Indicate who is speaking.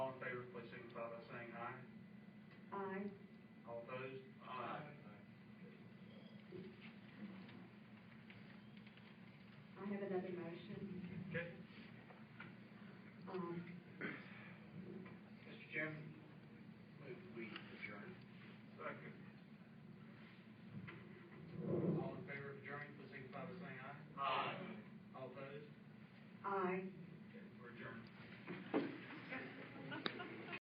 Speaker 1: I have another motion.
Speaker 2: Okay.
Speaker 1: Um,
Speaker 3: Mr. Chairman, move we adjourn.
Speaker 2: Second.
Speaker 3: All in favor of adjourning, please signify by saying aye.
Speaker 2: Aye.
Speaker 3: All opposed?
Speaker 1: aye.